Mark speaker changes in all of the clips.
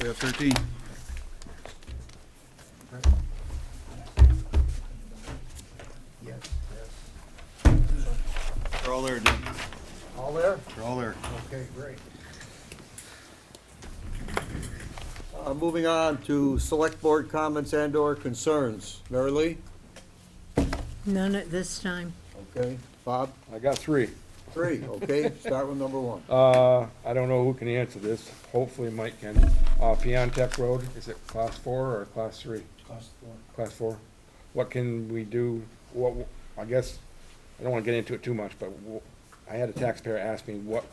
Speaker 1: got thirteen.
Speaker 2: Yes.
Speaker 1: They're all there, Dick.
Speaker 2: All there?
Speaker 1: They're all there.
Speaker 2: Okay, great. Uh, moving on to select board comments and or concerns. Mary Lee?
Speaker 3: None at this time.
Speaker 2: Okay. Bob?
Speaker 4: I got three.
Speaker 2: Three, okay, start with number one.
Speaker 4: Uh, I don't know who can answer this. Hopefully Mike can. Uh, Piontech Road, is it class four or class three? Class four. What can we do? What, I guess, I don't wanna get into it too much, but wh- I had a taxpayer ask me what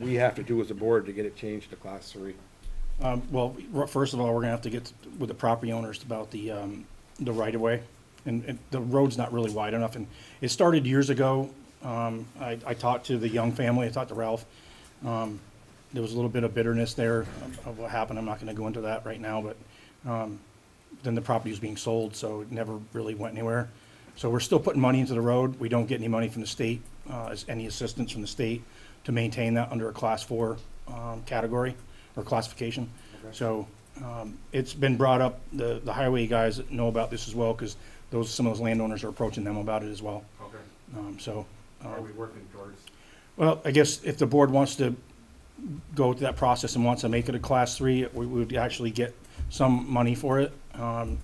Speaker 4: we have to do as a board to get it changed to class three.
Speaker 5: Um, well, r- first of all, we're gonna have to get with the property owners about the, um, the right of way. And, and the road's not really wide enough and it started years ago. Um, I, I talked to the Young family, I talked to Ralph. Um, there was a little bit of bitterness there of- of what happened. I'm not gonna go into that right now, but, um, then the property was being sold, so it never really went anywhere. So we're still putting money into the road. We don't get any money from the state, uh, as any assistance from the state to maintain that under a class four, um, category or classification. So, um, it's been brought up, the, the highway guys know about this as well, cause those, some of those landowners are approaching them about it as well.
Speaker 4: Okay,
Speaker 5: Um, so, uh,
Speaker 4: we working towards?
Speaker 5: well, I guess if the board wants to go through that process and wants to make it a class three, we would actually get some money for it. Um,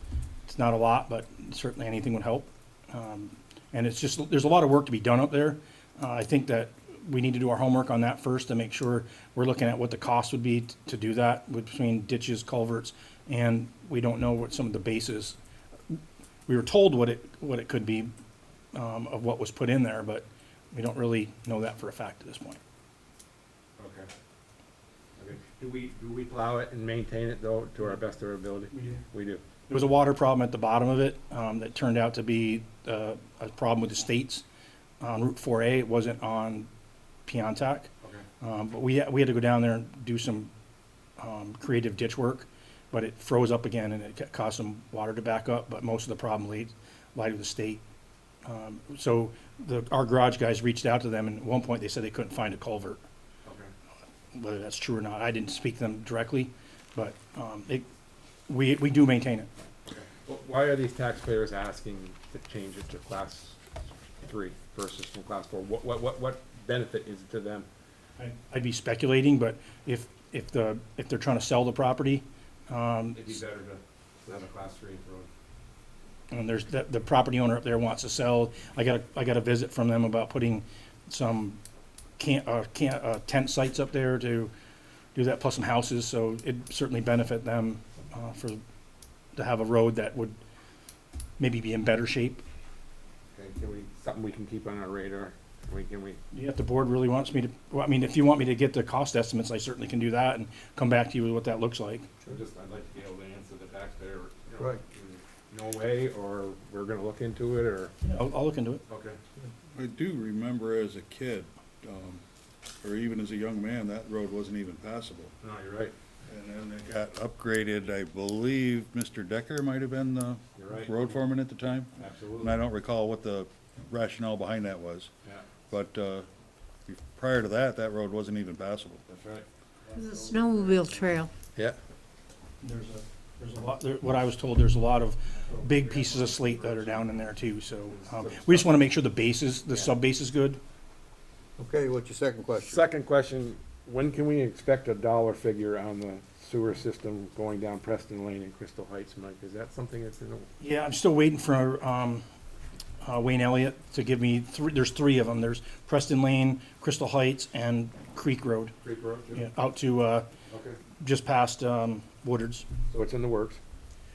Speaker 5: it's not a lot, but certainly anything would help. Um, and it's just, there's a lot of work to be done up there. Uh, I think that we need to do our homework on that first to make sure we're looking at what the cost would be t- to do that with- between ditches, culverts, and we don't know what some of the bases. We were told what it, what it could be, um, of what was put in there, but we don't really know that for a fact at this point.
Speaker 4: Okay. Okay. Do we, do we plow it and maintain it though, to our best of our ability? We do. We do.
Speaker 5: There was a water problem at the bottom of it um, that turned out to be uh, a problem with the states on Route 4A. It wasn't on Piontek.
Speaker 4: Okay.
Speaker 5: Um, But we, we had to go down there and do some um, creative ditch work, but it froze up again and it ca- caused some water to back up, but most of the problem laid, lied with the state. Um, So the, our garage guys reached out to them and at one point they said they couldn't find a culvert.
Speaker 4: Okay.
Speaker 5: whether that's true or not. I didn't speak to them directly, but um, it, we, we do maintain it.
Speaker 4: Wh- Why are these taxpayers asking to change it to class three versus from class four? What, what, what, what benefit is it to them?
Speaker 5: I- I'd be speculating, but if, if the, if they're trying to sell the property, um,
Speaker 4: It'd be better to have a class three road.
Speaker 5: and there's, the, the property owner up there wants to sell, I got a, I got a visit from them about putting some can uh, can uh, tent sites up there to do that, plus some houses, so it'd certainly benefit them, uh, for, to have a road that would maybe be in better shape.
Speaker 4: Okay, can we, something we can keep on our radar? Can we, can we,
Speaker 5: Yeah, if the board really wants me to, well, I mean, if you want me to get the cost estimates, I certainly can do that and come back to you with what that looks like.
Speaker 4: I'm just, I'd like to be able to answer the taxpayer, you know,
Speaker 2: Right.
Speaker 4: in no way, or we're gonna look into it, or,
Speaker 5: I'll, I'll look into it.
Speaker 4: okay.
Speaker 1: I do remember as a kid, um, or even as a young man, that road wasn't even passable.
Speaker 4: No, you're right.
Speaker 1: And then it got upgraded, I believe Mr. Decker might have been the
Speaker 4: You're right.
Speaker 1: road foreman at the time. And I
Speaker 4: Absolutely.
Speaker 1: don't recall what the rationale behind that was,
Speaker 4: Yeah,
Speaker 1: but, uh, prior to that, that road wasn't even passable.
Speaker 4: that's right.
Speaker 3: The snowmobile trail.
Speaker 1: Yeah.
Speaker 5: There's a, there's a lot, there- what I was told, there's a lot of big pieces of slate that are down in there too, so, um, we just wanna make sure the base is, the sub base is good.
Speaker 2: Okay, what's your second question?
Speaker 4: Second question, when can we expect a dollar figure on the sewer system going down Preston Lane and Crystal Heights, Mike? Is that something that's in the?
Speaker 5: Yeah, I'm still waiting for, um, uh, Wayne Elliott to give me three, there's three of them. There's Preston Lane, Crystal Heights, and Creek Road,
Speaker 4: Creek Road?
Speaker 5: yeah, out to, uh,
Speaker 4: Okay.
Speaker 5: just past, um, Woodard's.
Speaker 4: So it's in the works.